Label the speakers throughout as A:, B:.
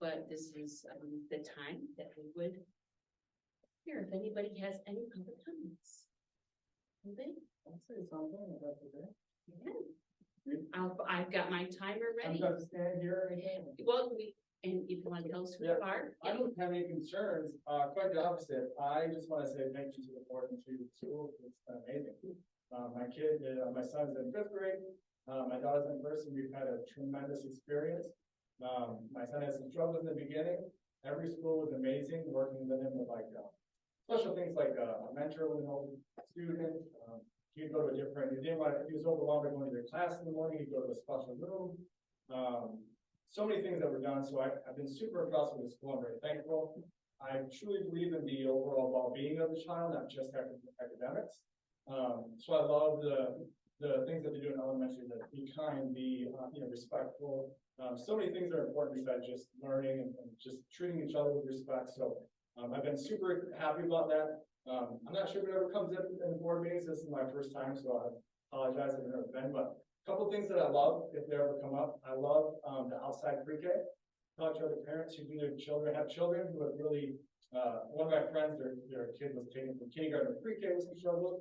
A: but this is, um, the time that we would hear if anybody has any public comments. Anybody?
B: I'll say something about that.
A: Yeah. I'll, I've got my timer
B: I'm
A: ready.
B: gonna stand here and
A: Well, we, and if you want to tell us who you
B: Yeah.
A: are.
B: I don't have any concerns, uh, quite the opposite, I just wanna say thank you to the board and to the school, it's been amazing. Uh, my kid, uh, my son's in fifth grade, uh, my daughter's in first, and we've had a tremendous experience. Um, my son had some trouble in the beginning, every school was amazing, working with him with like, uh, special things like, uh, a mentor with an old student, um, he'd go to a different, he didn't want, he was overwhelmed by going to their class in the morning, he'd go to a special room. Um, so many things that were done, so I, I've been super impressed with this school, I'm very thankful. I truly believe in the overall well-being of the child, not just acad- academics. Um, so I love the, the things that they do in elementary, that be kind, be, uh, you know, respectful. Um, so many things are important besides just learning and, and just treating each other with respect, so, um, I've been super happy about that. Um, I'm not sure if it ever comes up in the board meetings, this is my first time, so I apologize if it never been, but Couple things that I love, if they ever come up, I love, um, the outside pre-K. Talk to other parents who do their children, have children who have really, uh, one of my friends, their, their kid was taken from kindergarten to pre-K with some struggles.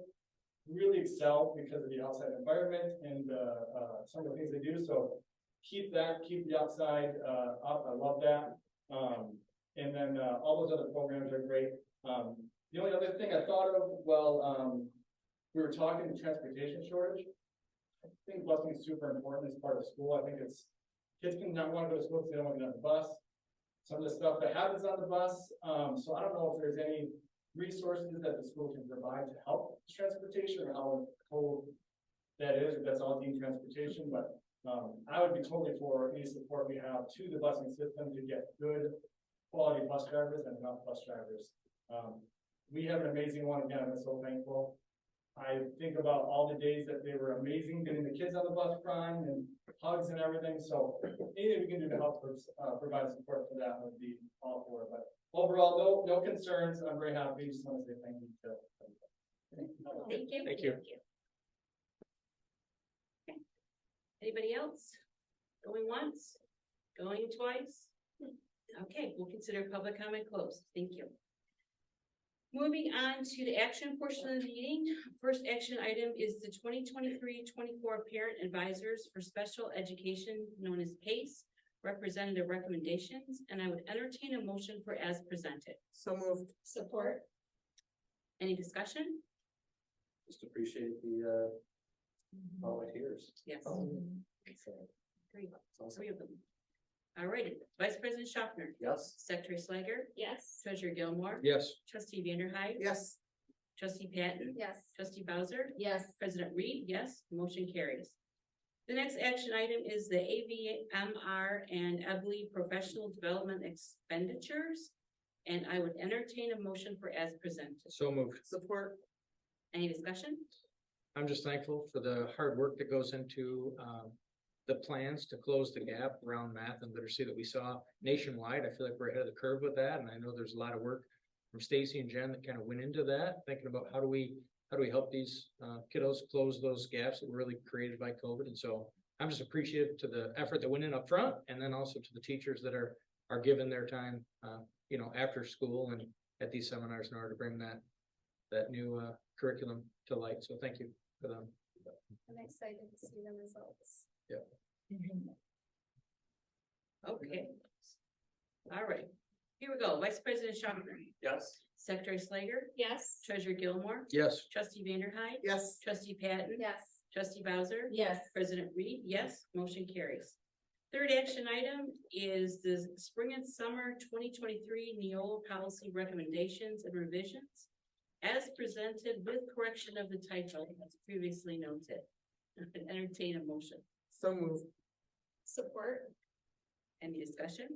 B: Really excel because of the outside environment and, uh, uh, some of the things they do, so keep that, keep the outside, uh, up, I love that. Um, and then, uh, all those other programs are great. Um, the only other thing I thought of, well, um, we were talking transportation shortage. I think busing is super important as part of school. I think it's, kids can not want to go to school because they don't want to get on the bus. Some of the stuff that happens on the bus, um, so I don't know if there's any resources that the school can provide to help with transportation or how cold that is, if that's all deemed transportation, but, um, I would be totally for any support we have to the busing system to get good quality bus drivers and enough bus drivers. Um, we have an amazing one again, I'm so thankful. I think about all the days that they were amazing, getting the kids on the bus crying and hugs and everything, so anything we can do to help uh, provide support for that would be all for it, but overall, no, no concerns, I'm very happy, just want to say thank you to everybody.
A: Thank you.
B: Thank you.
A: Okay. Anybody else? Going once, going twice? Okay, we'll consider public comment closed. Thank you. Moving on to the action portion of the meeting. First action item is the 2023-24 Parent Advisors for Special Education, known as PACE, representative recommendations, and I would entertain a motion for as presented.
C: So moved.
A: Support. Any discussion?
D: just appreciate the, uh, volunteers.
A: Yes.
E: Oh. Mm-hmm.
A: Three,
D: Awesome.
A: three of them. All righty, Vice President Schaffner,
D: Yes.
A: Secretary Slager,
E: Yes.
A: Treasurer Gilmore,
D: Yes.
A: Trustee Vanderhyde,
C: Yes,
A: Trustee Patton,
E: Yes.
A: Trustee Bowser,
E: Yes.
A: President Reed, yes, motion carries. The next action item is the AVMR and Ebley Professional Development Expenditures. And I would entertain a motion for as presented.
F: So moved.
C: support,
A: Any discussion?
F: I'm just thankful for the hard work that goes into um the plans to close the gap around math and literacy that we saw nationwide. I feel like we're ahead of the curve with that, and I know there's a lot of work from Stacy and Jen that kind of went into that, thinking about how do we, how do we help these uh kiddos close those gaps that were really created by COVID? And so I'm just appreciative to the effort that went in up front, and then also to the teachers that are are given their time, uh, you know, after school and at these seminars in order to bring that that new uh curriculum to light. So thank you for them.
E: I'm excited to see the results.
A: Okay. All right, here we go. Vice President Schaffner,
D: Yes.
A: Secretary Slager,
E: Yes.
A: Treasurer Gilmore,
F: Yes.
A: Trustee Vanderhyde,
C: yes,
A: Trustee Patton,
E: Yes.
A: Trustee Bowser,
E: Yes.
A: President Reed, yes, motion carries. Third action item is the spring and summer twenty twenty-three Neola policy recommendations and revisions as presented with correction of the title as previously noted. Entertain a motion.
C: so moved.
E: Support.
A: Any discussion?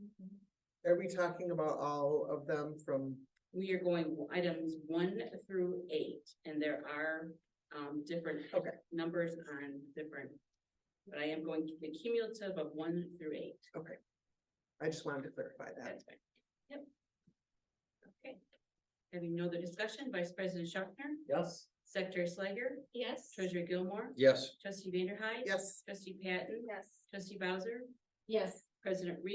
E: Mm-hmm.
C: Are we talking about all of them from,
A: We are going items one through eight, and there are, um, different
C: Okay.
A: numbers on different, but I am going the cumulative of one through eight.
C: I just wanted to clarify that.
A: That's fine. Yep. Okay. Having no other discussion, Vice President Schaffner,
D: Yes.
A: Secretary Slager,
E: Yes.
A: Treasurer Gilmore,
F: Yes.
A: Trustee Vanderhyde.
C: Yes.
A: Trustee Patton,
E: Yes.
A: Trustee Bowser,
E: Yes.
A: President Reed.